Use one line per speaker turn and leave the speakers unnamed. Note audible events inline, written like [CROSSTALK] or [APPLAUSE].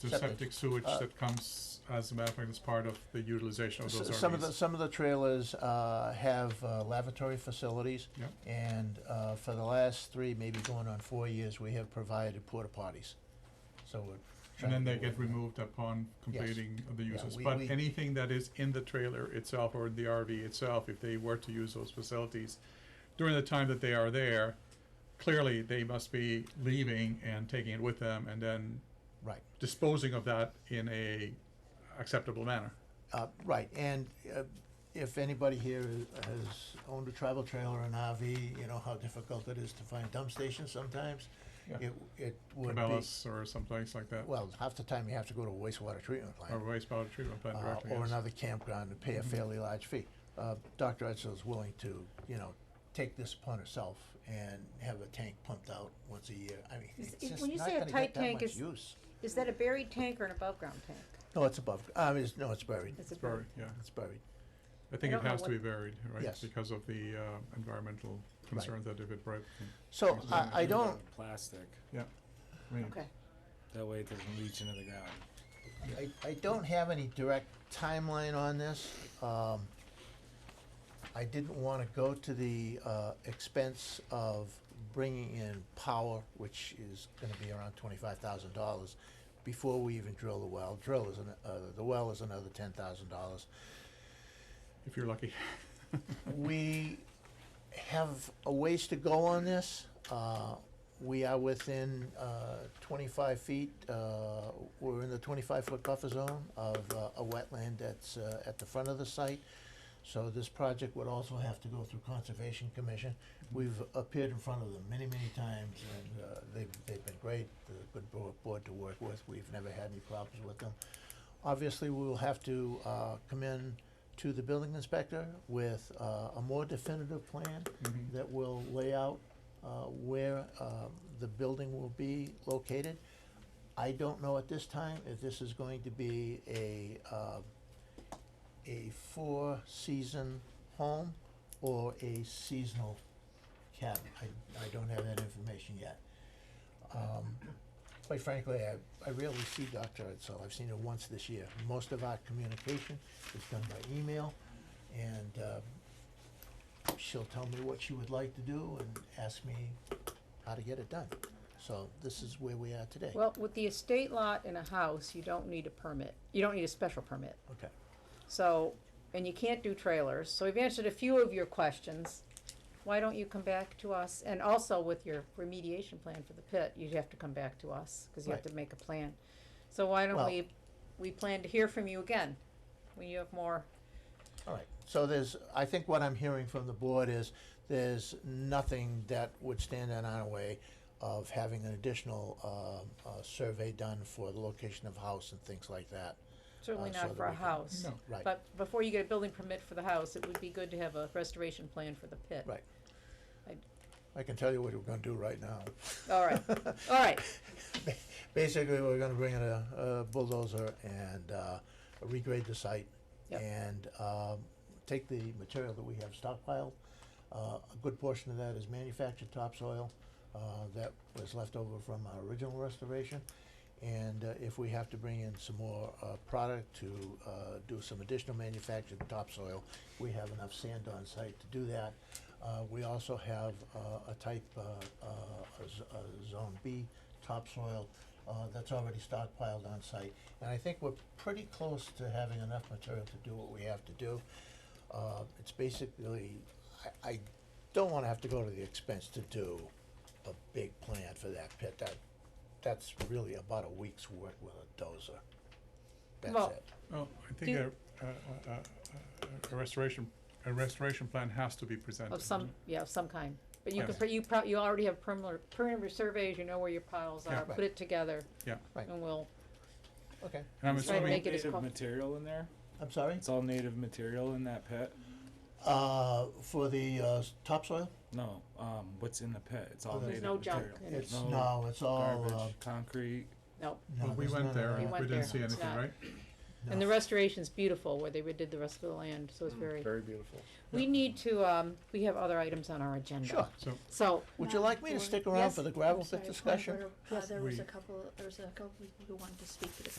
the
Septic.
septic sewage
Uh,
that comes, as a matter of fact, as part of the utilization of
S-
Oh, those
Some of the,
RVs.
some of the trailers uh, have uh, lavatory facilities.
Yeah.
And uh, for the last three, maybe going on four years, we have provided porta potties. So we're
And
trying
then
to
they
do
get
it.
removed upon completing the
Yeah,
uses.
we-
But
we-
anything that is in the trailer itself or in the RV itself, if they were to use those facilities during the time that they are there, clearly they must be leaving and taking it with them and then
Right.
disposing of that in a acceptable manner.
Uh, right, and, uh, if anybody here has owned a travel trailer or an RV, you know how difficult it is to find dump stations sometimes.
Yeah.
It, it would be,
Cabela's or someplace like that, or
well, half the time you have to go to a wastewater treatment
Oh,
plant.
wastewater treatment plant
uh,
directly,
Or
yes.
another campground and pay a
Mhm.
fairly large fee. Uh, Dr. Edsel is willing to, you know, take this upon herself and have a tank pumped out once a year. I mean,
Is-
it's
if-
just
when you
not
say a
gonna get
tight
that
tank,
much
is-
use.
Is that a buried tank or an above ground tank?
No, it's above, uh, it's, no, it's buried.
It's a
Buried, yeah.
It's buried.
I think
I
it
don't know
has to
what-
be buried, right?
Yes.
Because of the uh, environmental concerns that if it broke,
So
It's
I,
not
I
good.
don't,
Plastic,
I mean,
Okay,
that way it doesn't leach into the ground.
I, I don't have any direct timeline on this. Um, I didn't wanna go to the, uh, expense of bringing in power, which is gonna be around twenty-five thousand dollars, before we even drill the well. Drill is, an- uh, the well is another ten thousand dollars.
if you're lucky. [LAUGHS]
We have a ways to go on this. Uh, We are within uh, 25 feet, uh, we're in the 25-foot buffer zone of uh, a wetland that's uh, at the front of the site. So this project would also have to go through Conservation Commission. We've appeared in front of them many, many times, and uh, they've, they've been great, they're a good bo- board to work with. We've never had any problems with them. Obviously, we will have to uh, come in to the building inspector with uh, a more definitive plan
Mhm.
that will lay out uh, where um, the building will be located. I don't know at this time if this is going to be a, uh, a four-season home or a seasonal cabin. I, I don't have that information yet. Um, Quite frankly, I, I rarely see Dr. Edsel. I've seen her once this year. Most of our communication is done by email, and um, she'll tell me what she would like to do and ask me how to get it done. So this is where we are today.
well, with the estate lot and a house, you don't need a permit, you don't need a special permit,
Okay,
so, and you can't do trailers, so we've answered a few of your questions. Why don't you come back to us, and also with your remediation plan for the pit, you'd have to come back to us, cause you have
Right.
to make a plan. So why don't
Well-
we, we plan to hear from you again, when you have more,
all right. So there's, I think what I'm hearing from the board is there's nothing that would stand in our way of having an additional um, uh, survey done for the location of house and things like that.
certainly
Uh, so
not
that
for a
we can-
house.
No.
Right.
But before you get a building permit for the house, it would be good to have a restoration plan for the pit.
Right.
I-
I can tell you what we're gonna do right now.
All
[LAUGHS]
right, all right,
Basically, we're gonna bring in a, a bulldozer and, uh, regrade the site.
Yep.
And, um, take the material that we have stockpiled. Uh, a good portion of that is manufactured topsoil, uh, that was left over from our original restoration. And, uh, if we have to bring in some more, uh, product to, uh, do some additional manufactured topsoil, we have enough sand on site to do that. Uh, we also have, uh, a type, uh, uh, a z- a zone B topsoil, uh, that's already stockpiled on site. And I think we're pretty close to having enough material to do what we have to do. Uh, it's basically, I, I don't wanna have to go to the expense to do a big plan for that pit. That, that's really about a week's work with a dozer. That's
Well,
it.
Well, I think a,
Do-
a, a- a- a restoration, a restoration plan has to be presented.
of some, yeah, of some kind, but you can,
Yes.
pr- you pro- you already have perimeter, perimeter surveys, you know where your piles
Yeah.
are, put it together.
Yeah.
Right.
And we'll,
Okay,
And I'm
That's right,
assuming,
make it as
Native
co-
material in there?
I'm sorry,
It's all native material in that pit?
uh, for the, uh, s- topsoil,
No, um, what's in the pit? It's
Oh,
all
there's
native
no
material.
junk in it.
it's, no, it's all, uh,
Garbage, concrete.
no,
no,
well, we
there's none
went
of
there
that.
We
and we
went
didn't
there.
see
It's
anything,
not-
right?
and the
No.
restoration's beautiful, where they redid the rest of the land, so it's very,
Very beautiful.
we need to, um, we have other items on our agenda.
Sure,
So,
So,
would you like me to stick around for the gravel pit discussion?
Yes, I'm sorry, point of order. Uh, there was
We-
a couple, there was a couple people who wanted to speak to this